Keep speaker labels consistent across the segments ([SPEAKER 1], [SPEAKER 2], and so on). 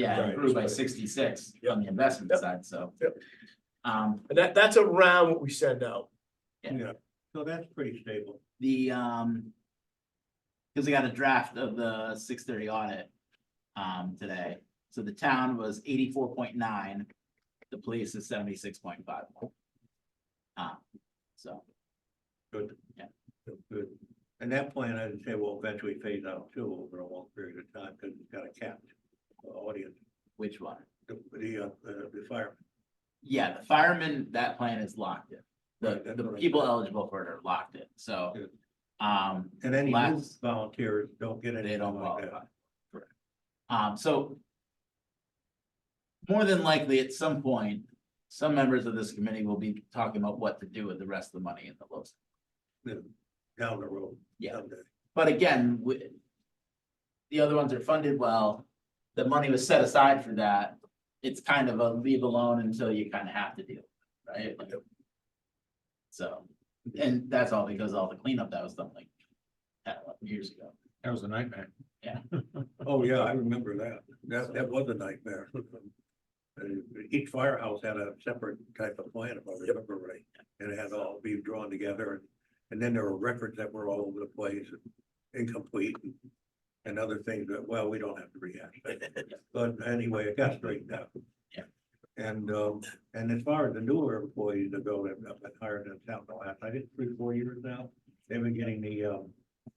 [SPEAKER 1] Yeah,
[SPEAKER 2] Right,
[SPEAKER 1] it grew by
[SPEAKER 2] right.
[SPEAKER 1] sixty-six
[SPEAKER 2] Yeah.
[SPEAKER 1] on the investment
[SPEAKER 2] Yeah.
[SPEAKER 1] side, so.
[SPEAKER 2] Yeah.
[SPEAKER 1] Um,
[SPEAKER 2] And that, that's around what we send out.
[SPEAKER 1] Yeah.
[SPEAKER 3] So that's pretty stable.
[SPEAKER 1] the, um. Cause I got a draft of the six thirty audit, um, today. So the town was eighty-four point nine, the police is seventy-six point five. Um, so,
[SPEAKER 3] Good.
[SPEAKER 1] Yeah.
[SPEAKER 3] Good. And that plan, I'd say, will eventually phase out too over a long period of time because it's got a capped uh, audience,
[SPEAKER 1] which one?
[SPEAKER 3] the, the, uh, the fire.
[SPEAKER 1] Yeah, the firemen, that plan is locked in.
[SPEAKER 3] Right,
[SPEAKER 1] The,
[SPEAKER 3] that's
[SPEAKER 1] the
[SPEAKER 3] what I
[SPEAKER 1] people
[SPEAKER 3] thought.
[SPEAKER 1] eligible for it are locked in, so.
[SPEAKER 3] Good.
[SPEAKER 1] Um,
[SPEAKER 3] And any new
[SPEAKER 1] Last-
[SPEAKER 3] volunteers don't get
[SPEAKER 1] They
[SPEAKER 3] anything
[SPEAKER 1] don't
[SPEAKER 3] like
[SPEAKER 1] qualify.
[SPEAKER 3] that.
[SPEAKER 1] Correct. Um, so. More than likely, at some point, some members of this committee will be talking about what to do with the rest of the money in the LoSiP.
[SPEAKER 3] Down the road.
[SPEAKER 1] Yeah.
[SPEAKER 3] someday.
[SPEAKER 1] But again, we. The other ones are funded well, the money was set aside for that, it's kind of a leave alone until you kind of have to deal, right? Like- So, and that's all because all the cleanup that was done like. 10, 11 years ago,
[SPEAKER 4] That was a nightmare.
[SPEAKER 3] Oh, yeah, I remember that. That, that was a nightmare. Uh, Each firehouse had a separate type of plan, if I remember right, and it had all be drawn together. and- And then there were records that were all over the place, incomplete, and other things that, well, we don't have to rehash. that. But anyway, it got straightened out.
[SPEAKER 1] Yeah.
[SPEAKER 3] And, um, and as far as the newer employees that go, that have been hired in town, the last, I think, three, four years now, they've been getting the, um,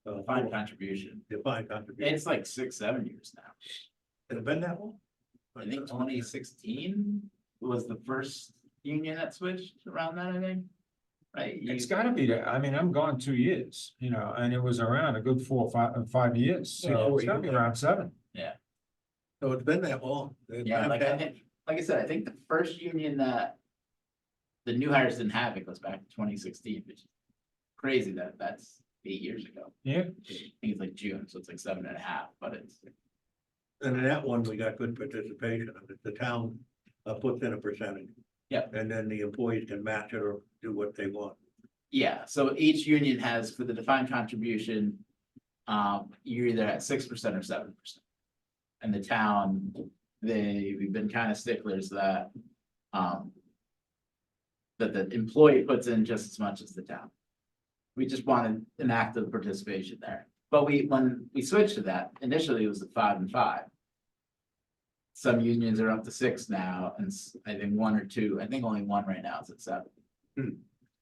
[SPEAKER 3] uh,
[SPEAKER 1] defined contribution,
[SPEAKER 3] Defined contribution.
[SPEAKER 1] it's like six, seven years now.
[SPEAKER 3] Has it been that long?
[SPEAKER 1] I think twenty sixteen was the first union that switched around that, I think. Right? You-
[SPEAKER 4] It's gotta be that. I mean, I'm gone two years, you know, and it was around a good four, or five, uh, five years.
[SPEAKER 3] Yeah,
[SPEAKER 4] So it's gotta be
[SPEAKER 3] yeah.
[SPEAKER 4] around seven.
[SPEAKER 3] So it's been that long. It's
[SPEAKER 1] Yeah,
[SPEAKER 3] not
[SPEAKER 1] like I
[SPEAKER 3] that-
[SPEAKER 1] think, like I said, I think the first union that. The new hires didn't have it goes back to twenty sixteen, which is crazy that that's eight years ago.
[SPEAKER 4] Yeah.
[SPEAKER 1] I think it's like June, so it's like seven and a half, but it's,
[SPEAKER 3] And in that one, we got good participation. The- The town uh, puts in a percentage.
[SPEAKER 1] Yep.
[SPEAKER 3] And then the employees can match it or do what they want.
[SPEAKER 1] yeah, so each union has for the defined contribution. Um, you're either at six percent or seven percent. And the town, they, we've been kind of sticklers that, um. That the employee puts in just as much as the town. We just wanted an active participation there, but we, when we switched to that, initially it was a five and five. Some unions are up to six now, and s- I think one or two, I think only one right now is at seven.
[SPEAKER 3] Hmm.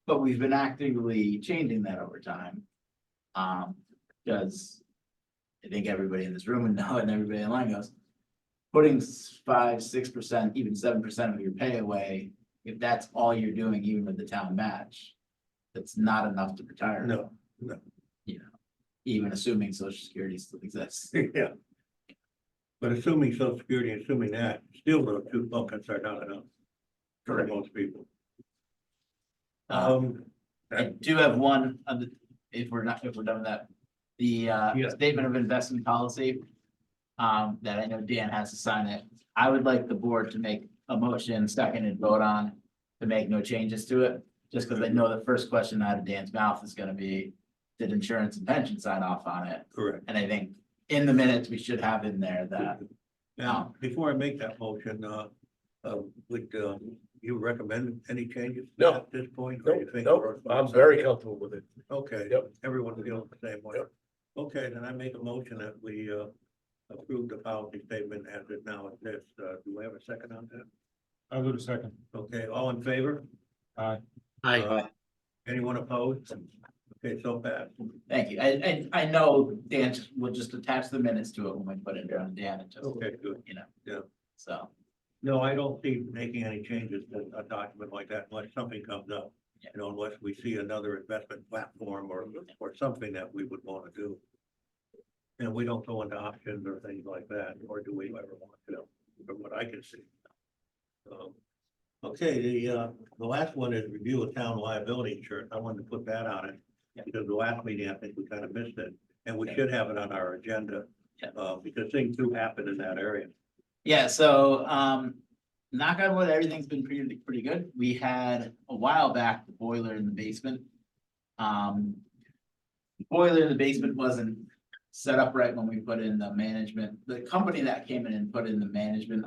[SPEAKER 1] But we've been actively changing that over time. Um, because I think everybody in this room would know, and everybody online goes, putting s- five, six percent, even seven percent of your pay away, if that's all you're doing, even with the town match, that's not enough to retire.
[SPEAKER 3] No,
[SPEAKER 1] Even assuming social security still exists.
[SPEAKER 3] yeah. But assuming social security, assuming that, still those two buckets are not enough. For most people.
[SPEAKER 1] Um,
[SPEAKER 3] Um,
[SPEAKER 1] I do have one, other- if we're not, if we're done with that, the uh,
[SPEAKER 2] Yeah.
[SPEAKER 1] statement of investment policy. Um, that I know Dan has to sign it. I would like the board to make a motion, second and vote on to make no changes to it. Just because I know the first question out of Dan's mouth is gonna be, did insurance and pension sign off on it?
[SPEAKER 3] correct.
[SPEAKER 1] And I think in the minutes, we should have in there that, um,
[SPEAKER 3] Now, before I make that motion, uh, uh, would, uh, you recommend any changes? to
[SPEAKER 2] No.
[SPEAKER 3] that At this point? or
[SPEAKER 2] Nope,
[SPEAKER 3] you think we're-
[SPEAKER 2] nope, I'm very comfortable with it.
[SPEAKER 3] Okay.
[SPEAKER 2] Yep.
[SPEAKER 3] Everyone feels the same way.
[SPEAKER 2] Yep.
[SPEAKER 3] Okay, then I make a motion that we uh approve the policy statement as it now exists. Uh, do we have a second on that?
[SPEAKER 4] I'll do the second.
[SPEAKER 3] Okay, all in favor?
[SPEAKER 4] Aye.
[SPEAKER 3] Aye. Anyone opposed? Okay, so passed.
[SPEAKER 1] thank you. I, I, I know Dan just- will just attach the minutes to it when we put it in front of Dan and just,
[SPEAKER 3] Okay, good.
[SPEAKER 1] you know.
[SPEAKER 3] Yeah.
[SPEAKER 1] So,
[SPEAKER 3] No, I don't see making any changes to a document like that unless something comes up.
[SPEAKER 1] Yeah. Mm-hmm.
[SPEAKER 3] You know, unless we see another investment platform or or something that we would want to do. And we don't go into options or things like that, or do we ever want to, from what I can see. Um, Okay, the, uh, the last one is review of town liability insurance. I wanted to put that on
[SPEAKER 1] Yeah.
[SPEAKER 3] it. Because the last meeting, I think we kind of missed it, and we
[SPEAKER 1] Yeah.
[SPEAKER 3] should have it on our agenda.
[SPEAKER 1] Yeah.
[SPEAKER 3] Uh, because things do happen in that area.
[SPEAKER 1] yeah, so, um, knock on wood, everything's been pretty, pretty good. We had a while back the boiler in the basement. Um. the Boiler in the basement wasn't set up right when we put in the management, the company that came in and put in the management